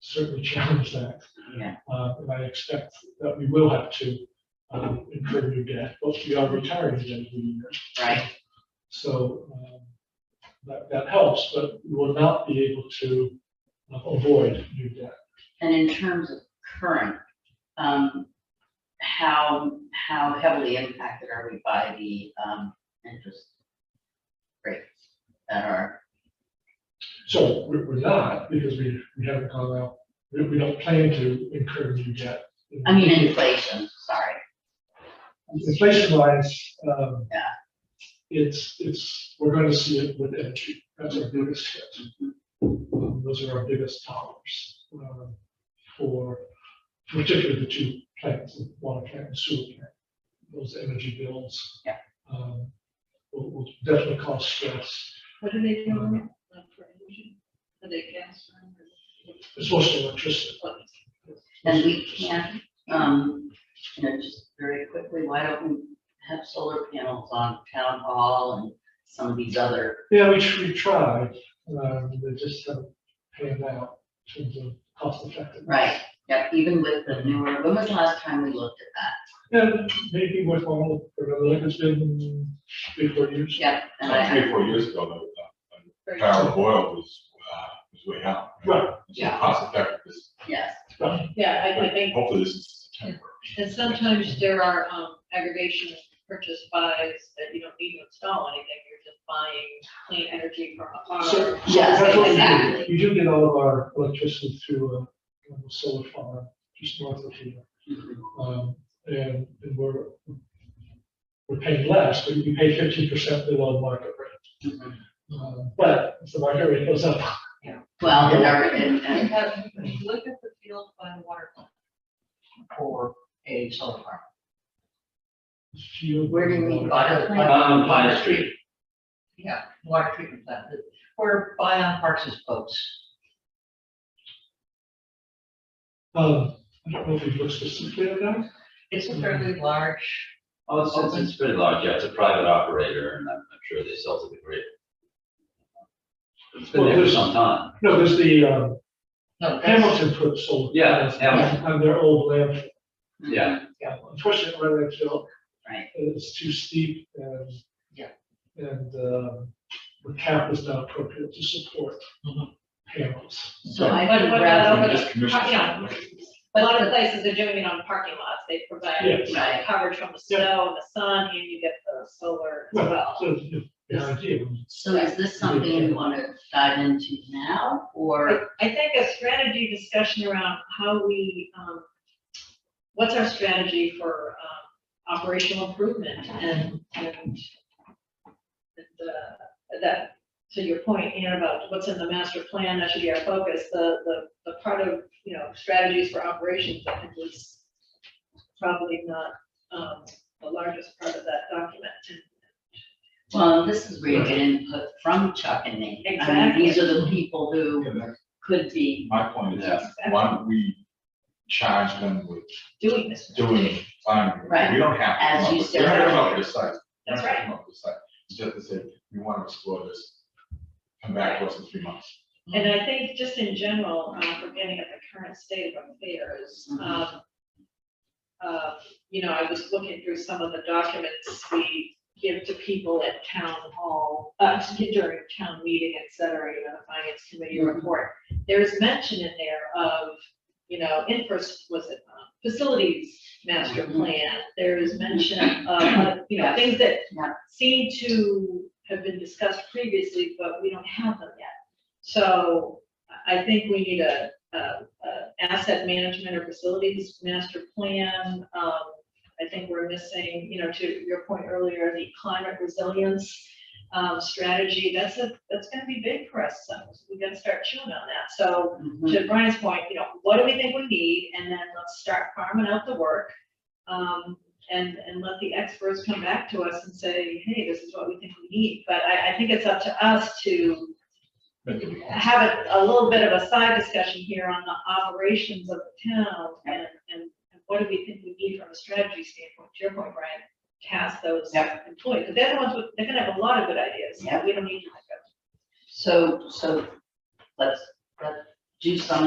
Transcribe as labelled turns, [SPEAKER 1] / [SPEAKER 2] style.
[SPEAKER 1] certainly challenge that.
[SPEAKER 2] Yeah.
[SPEAKER 1] Uh, and I expect that we will have to, um, incur new debt, both we are retiring at the end of the year.
[SPEAKER 2] right?
[SPEAKER 1] So, um, that, that helps, but we will not be able to uh, avoid new debt.
[SPEAKER 2] And in terms of current, um, how, how heavily impacted are we by the, um, interest rates that are,
[SPEAKER 1] So we're, we're not, because we, we haven't gone out, we, we don't plan to incur new debt.
[SPEAKER 2] I mean, inflation, sorry.
[SPEAKER 1] Inflation wise, um.
[SPEAKER 2] Yeah.
[SPEAKER 1] It's, it's, we're gonna see it with energy, that's our biggest hit. Um, Those are our biggest dollars, um, for particularly the two plants, the water plant and sewer plant. Those energy bills.
[SPEAKER 2] Yeah.
[SPEAKER 1] Um, will, will definitely cause stress.
[SPEAKER 3] What do they do on it? Like for energy? Are they gas run or
[SPEAKER 1] It's mostly electricity.
[SPEAKER 3] what?
[SPEAKER 2] And we can't, um, you know, just very quickly, why don't we have solar panels on town hall and some of these other,
[SPEAKER 1] Yeah, we, tr- we tried, um, they just haven't panned out in terms of cost effectiveness.
[SPEAKER 2] right? Yeah, even with the newer, when was the last time we looked at that?
[SPEAKER 1] And maybe with all, the like it's been three, four years.
[SPEAKER 2] Yeah, and
[SPEAKER 4] About
[SPEAKER 2] I,
[SPEAKER 4] Three, four years ago, the power of oil was, uh, was way out.
[SPEAKER 1] Right.
[SPEAKER 4] So
[SPEAKER 2] Yeah.
[SPEAKER 4] Cost effectiveness.
[SPEAKER 2] yes,
[SPEAKER 3] Yeah, I, I think,
[SPEAKER 4] Hopefully this is September.
[SPEAKER 3] and sometimes there are, um, aggregation purchase buys that you don't need to install anything, you're just buying clean energy from a
[SPEAKER 1] So,
[SPEAKER 3] farm.
[SPEAKER 1] so that's what
[SPEAKER 3] Yes,
[SPEAKER 1] we do,
[SPEAKER 3] exactly.
[SPEAKER 1] we do get all of our electricity through uh, a little solar farm just north of here. Um, and, and we're, we're paying less, but you pay fifty percent below market rate. Um, But if the market rate goes up,
[SPEAKER 2] well, and our, and,
[SPEAKER 5] You
[SPEAKER 2] and,
[SPEAKER 5] have, if you look at the field by the water plant for a solar farm.
[SPEAKER 1] you.
[SPEAKER 2] where do you mean water plant?
[SPEAKER 6] Um, Pine Street,
[SPEAKER 5] Yeah, water treatment plant, that- where Bion Parks is close.
[SPEAKER 1] Um, I don't know if we've looked specifically at that.
[SPEAKER 5] It's a fairly large,
[SPEAKER 6] oh, it's, it's, it's pretty large, yeah, it's a private operator, and I'm, I'm sure they sell to the grid. It's been there for some time,
[SPEAKER 1] No, there's the, um,
[SPEAKER 5] no, that's,
[SPEAKER 1] Hamilton put solar.
[SPEAKER 6] Yeah,
[SPEAKER 1] panels
[SPEAKER 6] Hamilton.
[SPEAKER 1] On their old land.
[SPEAKER 6] yeah,
[SPEAKER 1] Yeah, unfortunately, where they felt
[SPEAKER 2] Right.
[SPEAKER 1] It's too steep and.
[SPEAKER 5] Yeah.
[SPEAKER 1] And, um, the cap is not appropriate to support
[SPEAKER 5] Mhm.
[SPEAKER 1] panels.
[SPEAKER 2] So I
[SPEAKER 3] But
[SPEAKER 2] think
[SPEAKER 3] what
[SPEAKER 2] rather,
[SPEAKER 3] about-
[SPEAKER 4] We just commissioned
[SPEAKER 3] Yeah.
[SPEAKER 4] it.
[SPEAKER 3] A lot of places are doing it on parking lots, they provide
[SPEAKER 1] Yes.
[SPEAKER 3] you know, coverage from the snow and the sun, and you get the solar as well.
[SPEAKER 1] So, yeah, the idea,
[SPEAKER 2] so is this something you wanna dive into now, or,
[SPEAKER 3] I I think a strategy discussion around how we, um, what's our strategy for, um, operational improvement and, and and, uh, that, to your point, Ann, about what's in the master plan, that should be our focus, the, the, the part of, you know, strategies for operations, I think was probably not, um, the largest part of that document.
[SPEAKER 2] well, this is where you get input from Chuck and me. I mean, these are the people who
[SPEAKER 4] Yeah, that's-
[SPEAKER 2] could be,
[SPEAKER 4] My point is,
[SPEAKER 6] Yeah.
[SPEAKER 4] why don't we charge them with
[SPEAKER 3] Doing this.
[SPEAKER 4] doing planning?
[SPEAKER 2] Right.
[SPEAKER 4] We don't have. to
[SPEAKER 2] As
[SPEAKER 4] come up
[SPEAKER 2] you
[SPEAKER 4] with-
[SPEAKER 2] said
[SPEAKER 4] We don't have to come
[SPEAKER 2] earlier.
[SPEAKER 4] up with a site. We don't
[SPEAKER 3] That's
[SPEAKER 4] have to come up with a site. It's Just to say, we want to explore this, come back to us in three months.
[SPEAKER 3] And I think just in general, uh, we're getting at the current state of affairs, um, uh, you know, I was looking through some of the documents we give to people at town hall, uh, during town meeting, et cetera, you know, the finance committee report. There is mention in there of, you know, interest, was it, uh, facilities master plan, there is mention of, uh, you know, things that
[SPEAKER 2] Yeah.
[SPEAKER 3] seem to have been discussed previously, but we don't have them yet. So I I think we need a, a, a asset management or facilities master plan. Um, I think we're missing, you know, to your point earlier, the climate resilience, um, strategy. That's a, that's gonna be big for us. So we gotta start chewing on that. So
[SPEAKER 2] Mhm.
[SPEAKER 3] to Brian's point, you know, what do we think we need, and then let's start farming out the work. Um, and, and let the experts come back to us and say, hey, this is what we think we need, but I, I think it's up to us to
[SPEAKER 4] Make it work.
[SPEAKER 3] have a, a little bit of a side discussion here on the operations of the town, and, and what do we think we need from a strategy standpoint, to your point, Brian, task those
[SPEAKER 2] Yep.
[SPEAKER 3] employees, because they're the ones, with- they're gonna have a lot of good ideas,
[SPEAKER 2] Yep.
[SPEAKER 3] we don't need to.
[SPEAKER 2] so, so, let's, let's do some